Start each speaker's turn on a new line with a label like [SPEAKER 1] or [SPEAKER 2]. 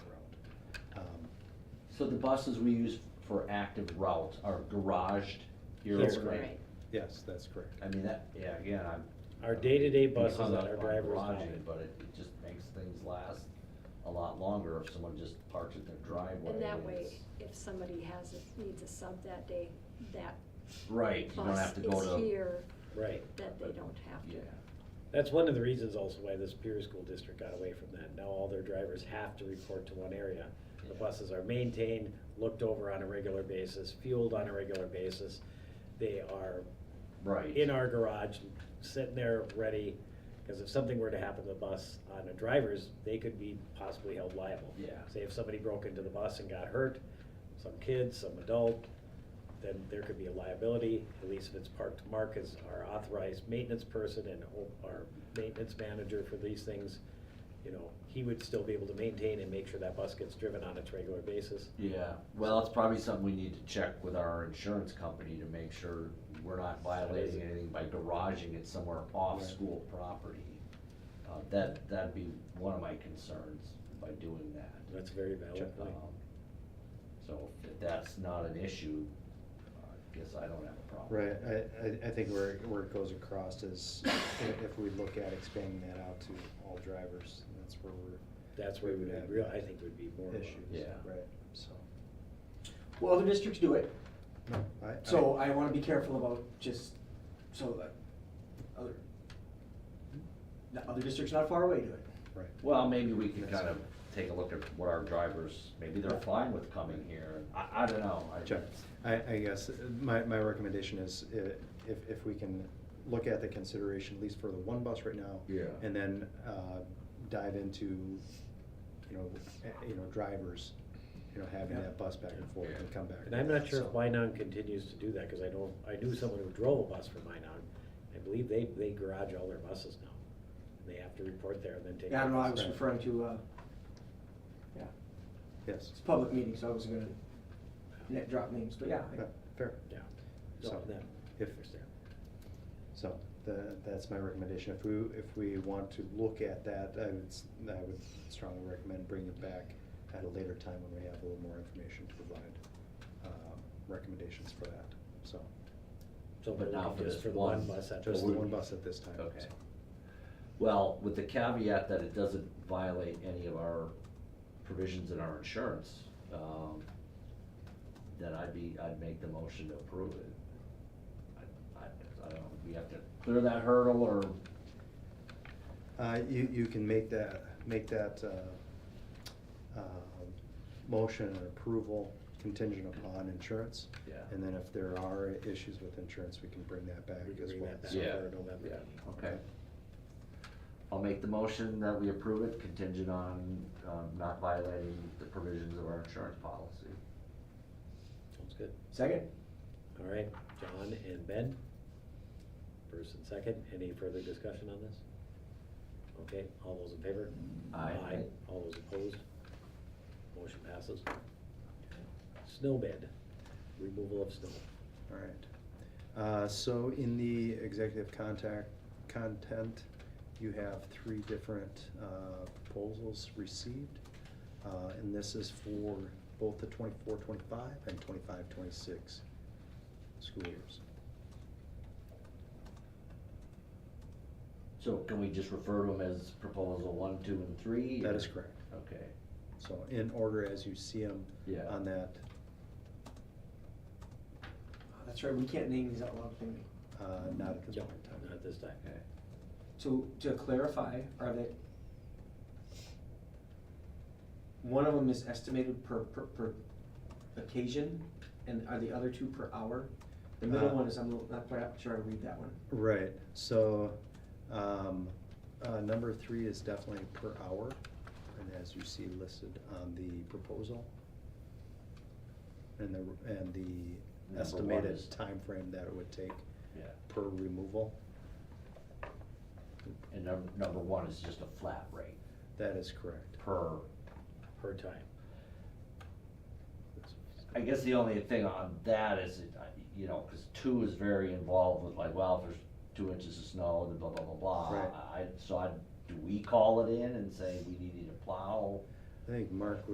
[SPEAKER 1] Um,
[SPEAKER 2] So the buses we use for active routes are garaged here
[SPEAKER 3] That's
[SPEAKER 2] overnight?
[SPEAKER 3] correct.
[SPEAKER 4] Right.
[SPEAKER 3] Yes, that's correct.
[SPEAKER 2] I mean, that, yeah, again, I'm.
[SPEAKER 3] Our day-to-day
[SPEAKER 2] I'm
[SPEAKER 3] buses
[SPEAKER 2] hung
[SPEAKER 3] that
[SPEAKER 2] up
[SPEAKER 3] our
[SPEAKER 2] on
[SPEAKER 3] drivers
[SPEAKER 2] garaging,
[SPEAKER 3] wanted.
[SPEAKER 2] But it it just makes things last a lot longer if someone just parks at their driveway.
[SPEAKER 4] And that
[SPEAKER 2] and
[SPEAKER 4] way,
[SPEAKER 2] it's-
[SPEAKER 4] if somebody has, a- needs a sub that day, that
[SPEAKER 2] Right, you don't
[SPEAKER 4] bus
[SPEAKER 2] have to go
[SPEAKER 4] is
[SPEAKER 2] to,
[SPEAKER 4] here,
[SPEAKER 3] Right.
[SPEAKER 4] that they don't have
[SPEAKER 2] yeah,
[SPEAKER 4] to.
[SPEAKER 3] That's one of the reasons also why this Pier School District got away from that. Now all their drivers have to report to one area. The
[SPEAKER 2] Yeah.
[SPEAKER 3] buses are maintained, looked over on a regular basis, fueled on a regular basis. They are
[SPEAKER 2] right.
[SPEAKER 3] in our garage, sitting there ready, because if something were to happen to the bus on a driver's, they could be possibly held liable.
[SPEAKER 2] Yeah.
[SPEAKER 3] Say if somebody broke into the bus and got hurt, some kid, some adult, then there could be a liability, at least if it's parked. Mark is our authorized maintenance person and o- our maintenance manager for these things. You know, he would still be able to maintain and make sure that bus gets driven on its regular basis.
[SPEAKER 2] Yeah, well, it's probably something we need to check with our insurance company to make sure we're not violating anything by garaging it somewhere off
[SPEAKER 3] Right.
[SPEAKER 2] school property. Uh, that, that'd be one of my concerns by doing that.
[SPEAKER 3] That's a very valid
[SPEAKER 2] Um,
[SPEAKER 3] point.
[SPEAKER 2] So if that's not an issue, I guess I don't have a problem.
[SPEAKER 1] Right, I, I, I think where, where it goes across is i- if we look at expanding that out to all drivers, that's where we're
[SPEAKER 3] That's where we would, real, I think would be more of a-
[SPEAKER 1] issues,
[SPEAKER 2] Yeah.
[SPEAKER 1] right, so.
[SPEAKER 5] Well, other districts do it,
[SPEAKER 1] no, I- I-
[SPEAKER 5] so I wanna be careful about just, so that, other, the other districts not far away do it.
[SPEAKER 1] Right,
[SPEAKER 2] Well, maybe we can
[SPEAKER 1] That's-
[SPEAKER 2] kind of take a look at what our drivers, maybe they're fine with coming here, I, I don't know. I-
[SPEAKER 1] Check. I, I guess, uh, my, my recommendation is i- if, if we can look at the consideration, at least for the one bus right now.
[SPEAKER 2] Yeah.
[SPEAKER 1] And then, uh, dive into, you know, a- you know, drivers, you know, having
[SPEAKER 5] Yeah.
[SPEAKER 1] that bus back and forth and come back.
[SPEAKER 3] And I'm not sure if
[SPEAKER 1] So-
[SPEAKER 3] Minong continues to do that, because I know, I knew someone who drove a bus for Minong. I believe they, they garage all their buses now. They have to report there and then take.
[SPEAKER 5] Yeah, I don't know, I
[SPEAKER 3] their
[SPEAKER 5] was
[SPEAKER 3] bus.
[SPEAKER 5] referring to, uh, yeah,
[SPEAKER 1] Yes,
[SPEAKER 5] it's a public meeting, so I wasn't gonna net drop names, but yeah,
[SPEAKER 1] Yeah, Uh, fair.
[SPEAKER 3] Yeah. So,
[SPEAKER 1] So,
[SPEAKER 3] that-
[SPEAKER 1] if,
[SPEAKER 3] understand.
[SPEAKER 1] So the, that's my recommendation. If we, if we want to look at that, I would, s- I would strongly recommend bringing it back at a later time when we have a little more information to provide, um, recommendations for that, so.
[SPEAKER 3] So
[SPEAKER 2] But
[SPEAKER 3] we're
[SPEAKER 2] now
[SPEAKER 3] looking
[SPEAKER 2] for
[SPEAKER 3] just
[SPEAKER 2] this
[SPEAKER 3] for the
[SPEAKER 2] one-
[SPEAKER 3] one bus at
[SPEAKER 1] Just
[SPEAKER 3] this
[SPEAKER 1] the
[SPEAKER 2] we-
[SPEAKER 1] one bus at this time. so.
[SPEAKER 2] Okay. Well, with the caveat that it doesn't violate any of our provisions in our insurance, um, then I'd be, I'd make the motion to approve it. I- I, I don't, know, we have to clear that hurdle or,
[SPEAKER 1] Uh, you, you can make that, make that, uh, um, motion and approval contingent upon insurance.
[SPEAKER 2] yeah.
[SPEAKER 1] And then if there are issues with insurance, we can bring that back
[SPEAKER 3] We can
[SPEAKER 1] as
[SPEAKER 3] bring
[SPEAKER 1] well.
[SPEAKER 3] that back
[SPEAKER 1] So-
[SPEAKER 2] Yeah.
[SPEAKER 3] for November.
[SPEAKER 2] Yeah, okay. I'll make the motion that we approve it contingent on, um, not violating the provisions of our insurance policy.
[SPEAKER 3] Sounds good.
[SPEAKER 5] second?
[SPEAKER 3] All right, John and Ben. First and second, any further discussion on this? Okay, all those in favor?
[SPEAKER 2] Aye.
[SPEAKER 3] All those opposed? Motion passes. Snowbed, removal of snow.
[SPEAKER 1] All right. Uh, So in the executive contact, content, you have three different uh, proposals received. Uh, And this is for both the 24-25 and 25-26 school years.
[SPEAKER 2] So can we just refer to them as proposal one, two, and three?
[SPEAKER 1] That
[SPEAKER 2] or-
[SPEAKER 1] is correct.
[SPEAKER 2] Okay,
[SPEAKER 1] So in order as you see them
[SPEAKER 2] yeah.
[SPEAKER 1] on that,
[SPEAKER 5] Oh, That's right, we can't name these out loud, can we?
[SPEAKER 1] uh, not at this
[SPEAKER 3] Yep,
[SPEAKER 1] point in time.
[SPEAKER 3] Not this time.
[SPEAKER 2] Okay.
[SPEAKER 5] So, to clarify, are they? One of them is estimated per, per, per occasion, and are the other two per hour? The middle
[SPEAKER 1] Uh,
[SPEAKER 5] one is, I'm not quite sure I read that one.
[SPEAKER 1] Right, so, um, uh, number three is definitely per hour, and as you see listed on the proposal. And the, and the
[SPEAKER 2] Number one
[SPEAKER 1] estimated
[SPEAKER 2] is-
[SPEAKER 1] time frame that it would take
[SPEAKER 2] Yeah,
[SPEAKER 1] per removal,
[SPEAKER 2] and number, number one is just a flat rate
[SPEAKER 1] that is correct.
[SPEAKER 2] per,
[SPEAKER 3] Per time.
[SPEAKER 2] I guess the only thing on that is, it, uh, you know, cause two is very involved with like, well, if there's two inches of snow, then blah, blah, blah, blah.
[SPEAKER 1] Right.
[SPEAKER 2] I, so I, do we call it in and say we need you to plow?
[SPEAKER 1] I think Mark